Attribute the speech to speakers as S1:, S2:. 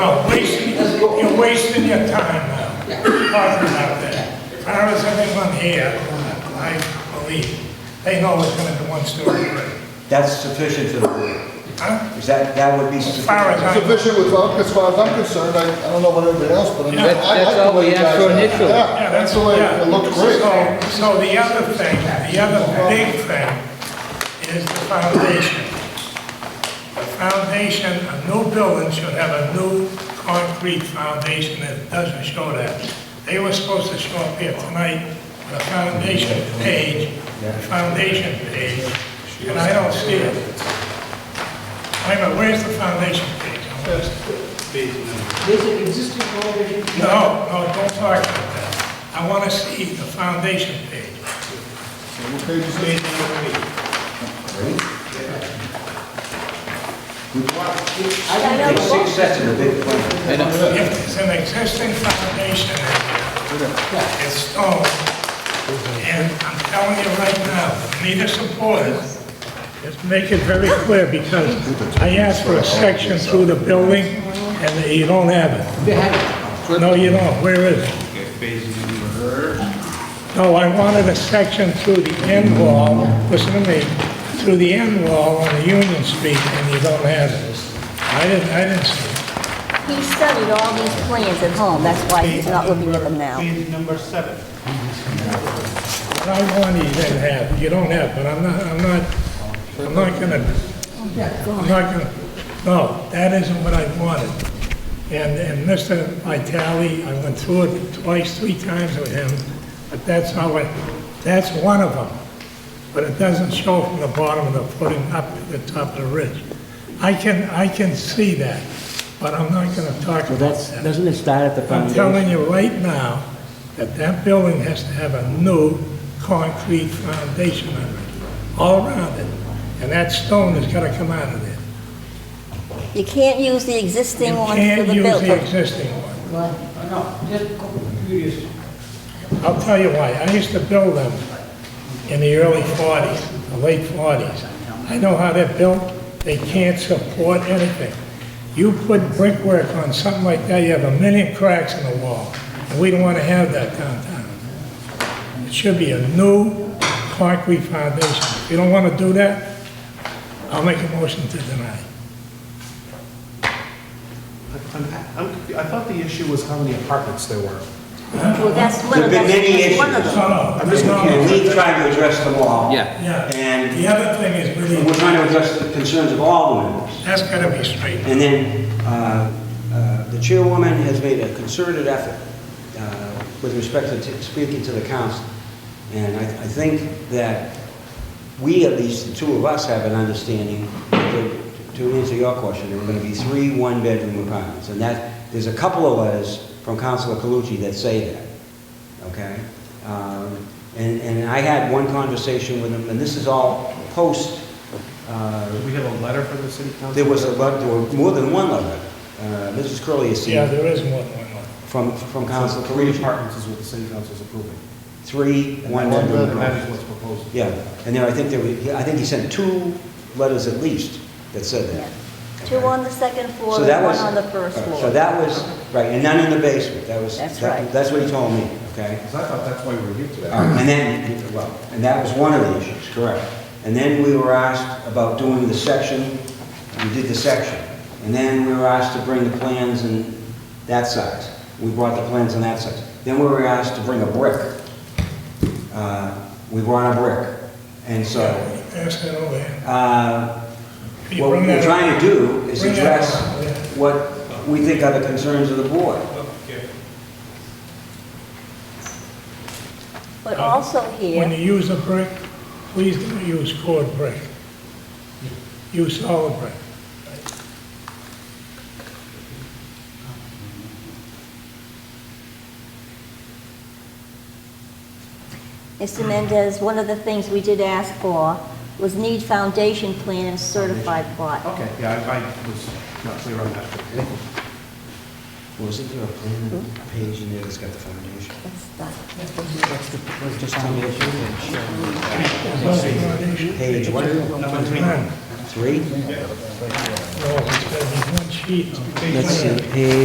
S1: No, wasting, you're wasting your time now, talking about that. When I was having one here, I believe, they know it's gonna be one story,
S2: That's sufficient for the board.
S1: huh?
S2: Is that, that would be
S1: As far as I
S2: sufficient?
S1: know.
S3: Sufficient without, as far as I'm concerned, I, I don't know about everybody else, but I mean, I
S1: That-
S3: I
S4: that's
S3: like the
S4: all we
S3: way you
S4: asked
S3: guys.
S4: for
S3: are.
S4: initially.
S3: Yeah, that's the way,
S1: yeah.
S3: it looked great.
S1: So, so the other thing, the other big thing is the foundation. The foundation, a new building should have a new concrete foundation that doesn't show that. They were supposed to show up here tonight, the foundation page, foundation page, and I don't see it. Wait a minute, where's the foundation page?
S5: There's an existing already.
S1: No, no, don't talk about that. I want to see the foundation page.
S3: What page is it?
S1: It's
S2: Take six sets of the big plan.
S1: an existing foundation, it's stone, and I'm telling you right now, need a supporter. Just make it very clear, because I asked for a section through the building, and you don't have it.
S5: They have
S1: No, you don't, where is it? No, I wanted a section through the end wall, listen to me, through the end wall on the Union Street, and you don't have it. I didn't, I didn't see it.
S6: He studied all these plans at home, that's why he's not looking at them now.
S7: Page number seven.
S1: I want you to have, you don't have, but I'm not, I'm not, I'm not gonna, I'm not gonna, no, that isn't what I wanted. And, and Mr. Vitale, I went through it twice, three times with him, but that's how it, that's one of them. But it doesn't show from the bottom of the footing up to the top of the ridge. I can, I can see that, but I'm not gonna talk
S4: Well,
S1: about
S4: that's,
S1: that.
S4: doesn't it start at the
S1: I'm
S4: foundation?
S1: telling you right now that that building has to have a new concrete foundation on it, all around it. And that stone has got to come out of there.
S6: You can't use the
S1: You
S6: existing ones for
S1: can't
S6: the
S1: use the
S6: building.
S1: existing one.
S5: it. No, just curious.
S1: I'll tell you why. I used to build them in the early 40s, the late 40s. I know how they're built. They can't support anything. You put brickwork on something like that, you have a million cracks in the wall. And we don't want to have that downtown. It should be a new concrete foundation. If you don't want to do that, I'll make a motion to deny.
S7: I'm- I'm- I thought the issue was how many apartments there were.
S6: Well, that's one
S2: There've
S6: of,
S2: been many
S6: that's
S2: issues.
S6: one of them.
S1: No, no,
S2: And
S1: no.
S2: we've tried to address them all.
S4: Yeah.
S1: Yeah.
S2: And-
S1: The other thing is really,
S2: We're trying to address the concerns of all the members.
S1: that's got to be straight.
S2: And then, uh, uh, the chairwoman has made a concerted effort uh, with respect to t- speaking to the council. And I I think that we, at least the two of us, have an understanding, that to answer your question, there were going to be three one-bedroom apartments. And that, there's a couple of letters from Councilor Calucci that say that. okay? Um, And, and I had one conversation with him, and this is all post, uh,
S7: We have a letter from the city council?
S2: there was a, lot- there were more than one letter. Uh, Mrs. Curley has
S1: Yeah,
S2: seen
S1: there is more than one.
S2: from, from Council
S7: Three
S2: Calucci,
S7: apartments is what the city council is approving.
S2: three
S3: one-bedroom.
S2: one-bedroom
S7: And that
S2: apartments.
S7: is what's proposed.
S2: Yeah, and there, I think there, were- I think he sent two letters at least that said that.
S6: Two on the second floor
S2: So
S6: and
S2: that
S6: one
S2: was
S6: on the first
S2: all right,
S6: floor.
S2: So that was, right, and none in the basement, that was.
S6: That's
S2: that-
S6: right.
S2: That's what he told me, okay?
S3: Because I thought that's why we were here today.
S2: Um, And then, well, and that was one of the issues, correct. And then we were asked about doing the section, we did the section. And then we were asked to bring the plans in that size. We brought the plans in that size. Then we were asked to bring a brick. Uh, We brought a brick. And so,
S1: Ask that over here.
S2: uh,
S1: Can you
S2: what
S1: bring
S2: we're
S1: that
S2: trying
S1: up?
S2: to do is
S1: Bring that
S2: address
S1: up, yeah.
S2: what we think are the concerns of the board.
S6: But also
S1: When you
S6: here,
S1: use a brick, please don't use cord brick. Use solid brick.
S6: Mr. Mendez, one of the things we did ask for was need foundation plan and certified plot.
S7: Okay, yeah, I I was not clear on that.
S2: Wasn't there a plan page in there that's got the foundation?
S6: That's not-
S2: Page what?
S1: None.
S2: Three?
S1: No, it's gotta be one. sheet?
S2: Let's see, page